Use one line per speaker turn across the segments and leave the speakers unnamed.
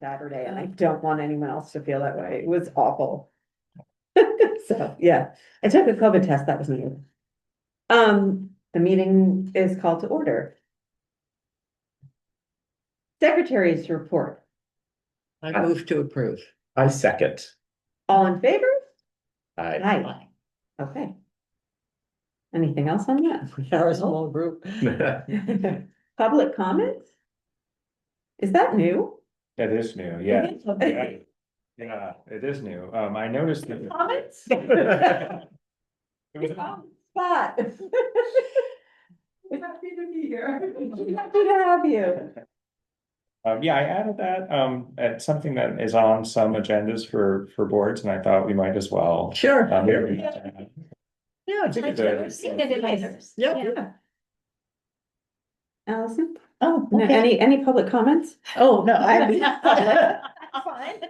Saturday, and I don't want anyone else to feel that way. It was awful. So, yeah, I took a COVID test, that was new. Um, the meeting is called to order. Secretary's report,
I move to approve.
I second.
all in favor?
I,
Aye, okay. Anything else on that?
We are a small group.
Ah.
that
Public comments? Is that new?
is new, yeah, yeah, yeah, it is new, um, I noticed. that-
Comments?
It was-
Um, Spot. Happy to be here. Happy to have you.
Um, yeah, I added that, um, at something that is on some agendas for, for boards, and I thought we might as well.
Sure.
um,
Yeah. it's- Yep.
Yeah. Allison,
Oh,
No, any, any public comments?
Oh, no, I.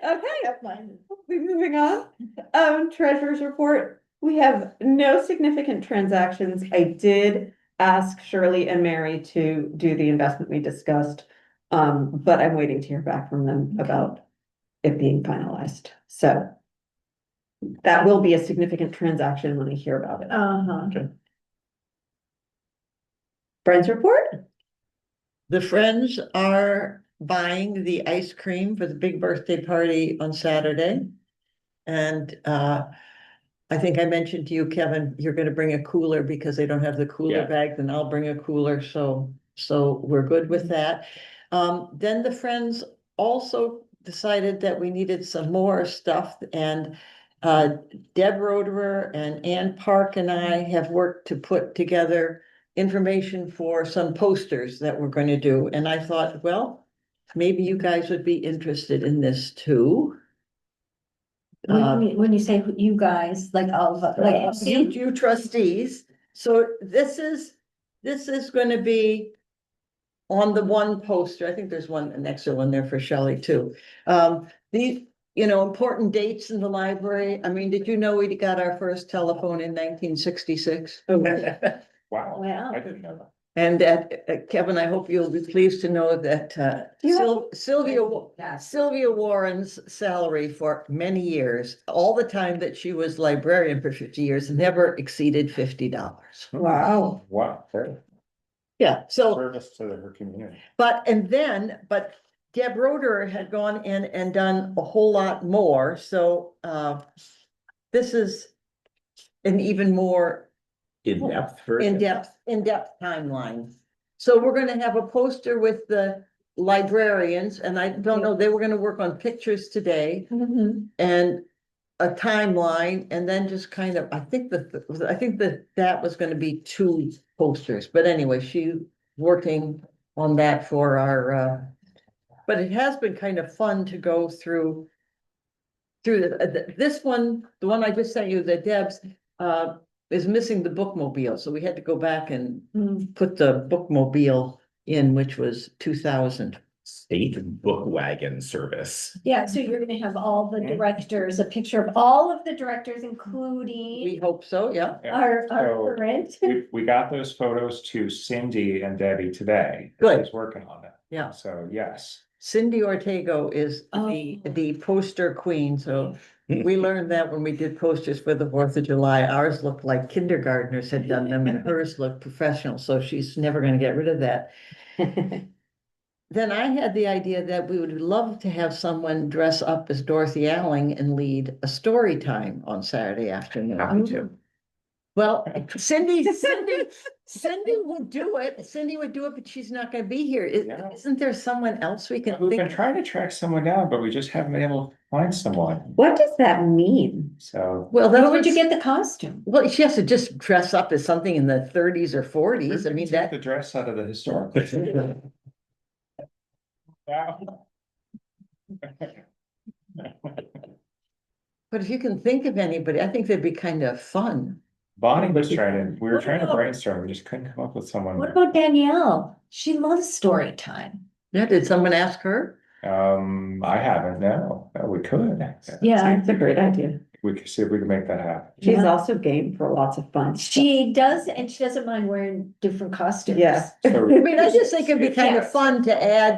Okay,
Fine.
we're moving on. Um, treasurer's report, we have no significant transactions. I did ask Shirley and Mary to do the investment we discussed. Um, but I'm waiting to hear back from them
Okay.
about it being finalized, so. That will be a significant transaction when I hear about it.
Uh-huh.
Friends report?
The friends are buying the ice cream for the big birthday party on Saturday. And uh, I think I mentioned to you, Kevin, you're gonna bring a cooler because they don't have the cooler
Yeah.
bag, then I'll bring a cooler, so, so we're good with that. Um, then the friends also decided that we needed some more stuff and uh, Deb Roderer and Ann Park and I have worked to put together information for some posters that we're gonna do, and I thought, well, maybe you guys would be interested in this too. Uh,
Uh,
When you- when you say you guys, like all of, us, like.
You you trustees, so this is, this is gonna be. On the one poster, I think there's one, an extra one there for Shelley too. Um, these, you know, important dates in the library. I mean, did you know we got our first telephone in nineteen sixty-six?
Wow,
Wow.
I didn't know
And that, uh, Kevin, I hope you'll be pleased to know that uh,
You have-
Syl- Sylvia, Wa-
Yes.
Sylvia Warren's salary for many years, all the time that she was librarian for fifty years, never exceeded fifty dollars.
that.
Wow.
Wow, fair
Yeah, so,
service to her community.
but, and then, but Deb Roder had gone in and done a whole lot more, so uh, this is an even more
In depth.
in-depth, in-depth timeline. So we're gonna have a poster with the librarians, and I don't know, they were gonna work on pictures today
Mhm.
and a timeline, and then just kind of, I think that, I think that that was gonna be two posters, but anyway, she working on that for our, uh, but it has been kind of fun to go through through the- the, this one, the one I just sent you, the Deb's, uh, is missing the bookmobile, so we had to go back and
Mm.
put the bookmobile in, which was two thousand.
State book wagon service.
Yeah, so you're gonna have all the directors, a picture of all of the directors, including
We hope so, yeah.
Yeah.
our,
So-
our current.
We, we got those photos to Cindy and Debbie today.
Good.
She's working on it.
Yeah.
So, yes.
Cindy Ortego is the,
Oh.
the poster queen, so
Hmm.
we learned that when we did posters for the Fourth of July. Ours looked like kindergartners had done them and hers looked professional, so she's never gonna get rid of that. Then I had the idea that we would love to have someone dress up as Dorothy Alling and lead a story time on Saturday afternoon.
Happy to.
Well, Cindy, Cindy, Cindy would do it. Cindy would do it, but she's not gonna be here.
Yeah.
I- Isn't there someone else we can
We've been
think?
trying to track someone down, but we just haven't been able to find someone,
What does that mean?
so.
Well,
Where
that's
would you
get?
get the costume?
Well, she has to just dress up as something in the thirties or forties. I
Where did you
mean,
take
that,
The dress out of the historical. Wow.
but if you can think of anybody, I think that'd be kind of fun.
Bonnie was trying to, we were
What
trying to
about-
brainstorm, we just couldn't come up with someone.
What about Danielle? She loves story time.
Yeah, did someone ask her?
Um, I haven't, no, Uh, we could.
Yeah,
That's a great idea.
We could see if we can make that happen.
She's
Yeah.
also game for lots of fun.
she does, and she doesn't mind wearing different costumes.
Yeah.
I mean, I just think it'd be kind of
Yes.
fun to add